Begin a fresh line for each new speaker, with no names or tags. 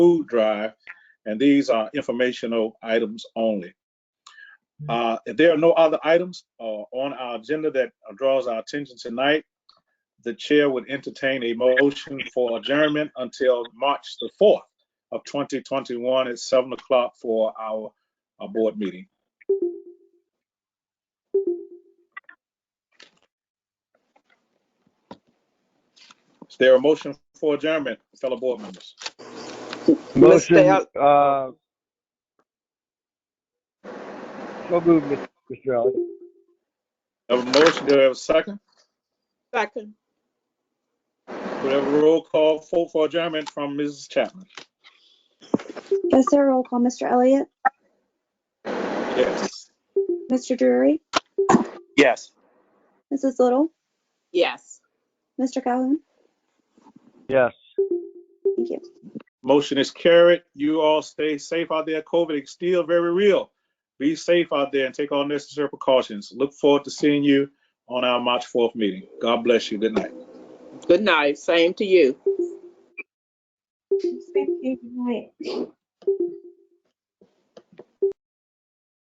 food drive, and these are informational items only. Uh, If there are no other items uh, on our agenda that draws our attention tonight, the chair would entertain a motion for adjournment until March the 4th of 2021 at 7 o'clock for our uh, board meeting. Is there a motion for adjournment, fellow board members?
Motion,
Al-
uh, so moved, Mr. Ellis.
Have a motion, do I have a second?
Second,
We have a roll call for for adjournment from Mrs. Chapman.
Is there a roll call? Mr. Elliott?
Yes.
Mr. Drury?
Yes.
Mrs. Little?
yes.
Mr. Calhoun?
Yes.
Thank you.
Motion is carried. You all stay safe out there. COVID is still very real. Be safe out there and take all necessary precautions. Look forward to seeing you on our March 4th meeting. God bless you. Good night.
Good night. Same to you.
Thank you.